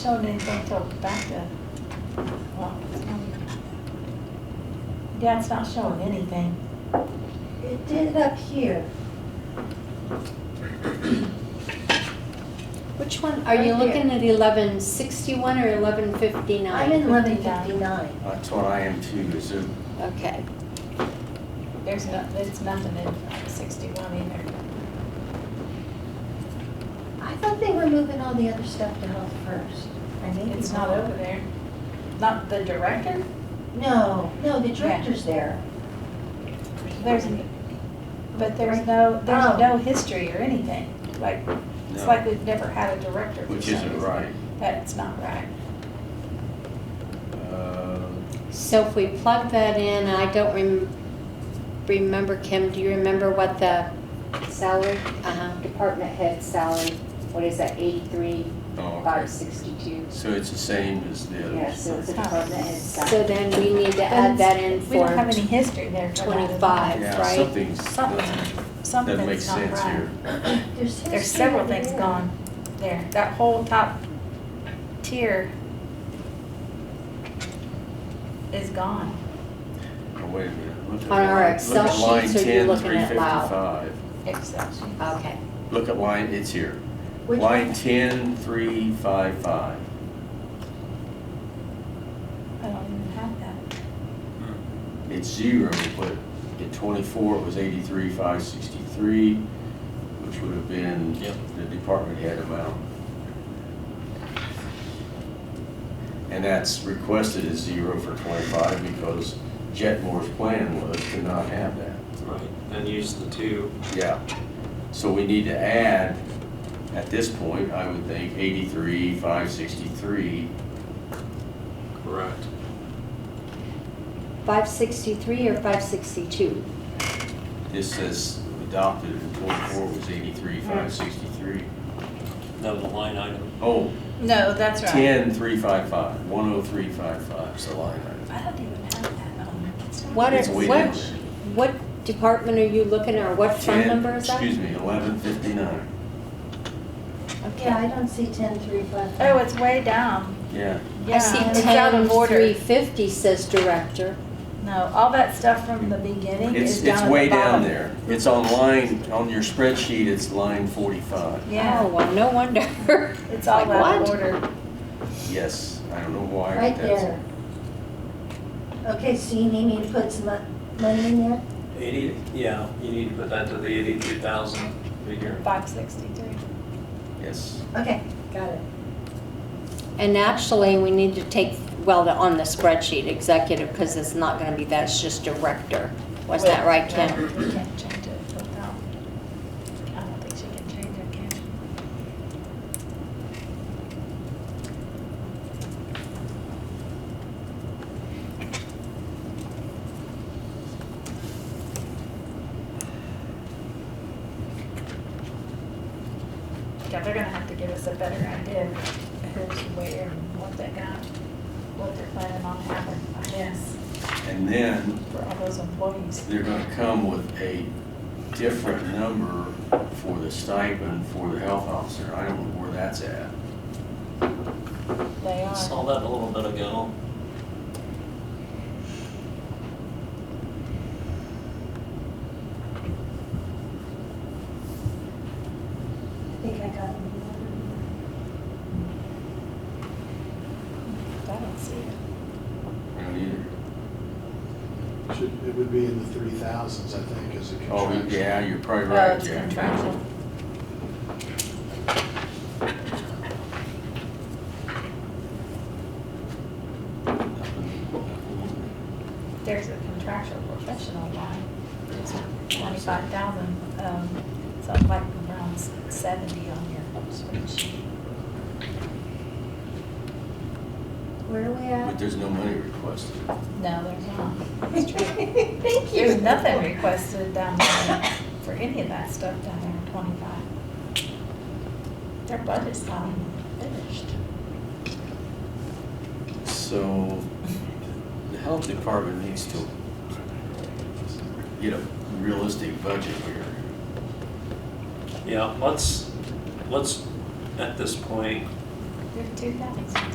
Showed anything till back to, well, yeah, it's not showing anything. It did up here. Which one, are you Right here. looking at eleven sixty-one or eleven fifty-nine? I'm in eleven fifty-nine. That's what I am too, is it? Okay, There's no, there's nothing in sixty-one either. I thought they were moving all the other stuff to health first. I may be It's not wrong. over there. Not the director? No, no, the director's there. There's, but there's no, Oh. there's no history or anything. Like, it's No. like we've never had a director. for Which some isn't reason. right. That's not right. Uh, so if we plug that in, I don't rem- remember, Kim, do you remember what the salary, uh-huh, department head salary, what is that, eighty-three, oh, okay. Five sixty-two, So it's the same as the yeah, so it's others. a department head So salary. then we need to add that in We don't have for any history there for that. twenty-five, Yeah, right? something's, Something, not- that makes something's not sense right. here. There's history. There's several over things there. gone there. That whole top tier is gone. Oh, wait a minute. Look at On our line- Excel look at line sheets, are you 10, looking at loud? 355. Excel sheet. Okay, Look at line, it's here. Which Line one? 10, 355. I don't even have that. It's zero, but at 24, it was 83, 563, which would have been the department head amount. And that's requested as zero for 25 because Jetmore's plan was to not have that. Right, and use the two. Yeah, so we need to add, at this point, I would think eighty-three, five sixty-three, Correct. five sixty-three or five sixty-two? this says adopted in twenty-four was eighty-three, five sixty-three. No, the line item. Oh, No, that's ten, three, five, five, one oh three, five, five, so line item. I don't even have that on. It's not- What, are- It's way what, down there. what department are you looking at, or what fund 10 number is that? Excuse me, eleven fifty-nine, Yeah, I don't see ten three five. Oh, it's way down. yeah, I Yeah, see it's out ten, of order. three fifty says director. No, all that stuff from the beginning it's, is it's down at the way down bottom. there, it's on line, on your spreadsheet, it's line forty-five. Oh, Yeah, well, no wonder. it's all Like, out of what? order. Yes, I don't know why, Right but that's. there. Okay, so you need me to put some mon- money in there? Eighty, yeah, you need to put that to the eighty-two thousand figure. Five sixty-three. Yes. Okay, got it. And actually, we need to take, well, the- on the spreadsheet, executive, because it's not gonna be that, it's just director. Was that right, Kim? No, You can't change it without, I don't think she can change it, can she? Yeah, they're gonna have to give us a better idea of who's where, and what they got, what they're planning on having, I guess, And then for all those employees. they're gonna come with a different number for the stipend for the health officer. I don't know where that's at. They are. Saw that a little bit ago. I think I got it. I don't see it. I don't either. Should, it would be in the three thousands, I think, as a Oh, contraction. yeah, you're probably Oh, right, it's Jack. contractual. There's a contractual professional line, just twenty-five thousand, um, something like around seventy on your spreadsheet. Where are we at? But there's no money requested. No, there's not. Thank you. There's nothing requested down there for any of that stuff down there in twenty-five. Their budget's not even finished. So the health department needs to get a realistic budget here. Yeah, let's, let's, at this point, They're two thousand.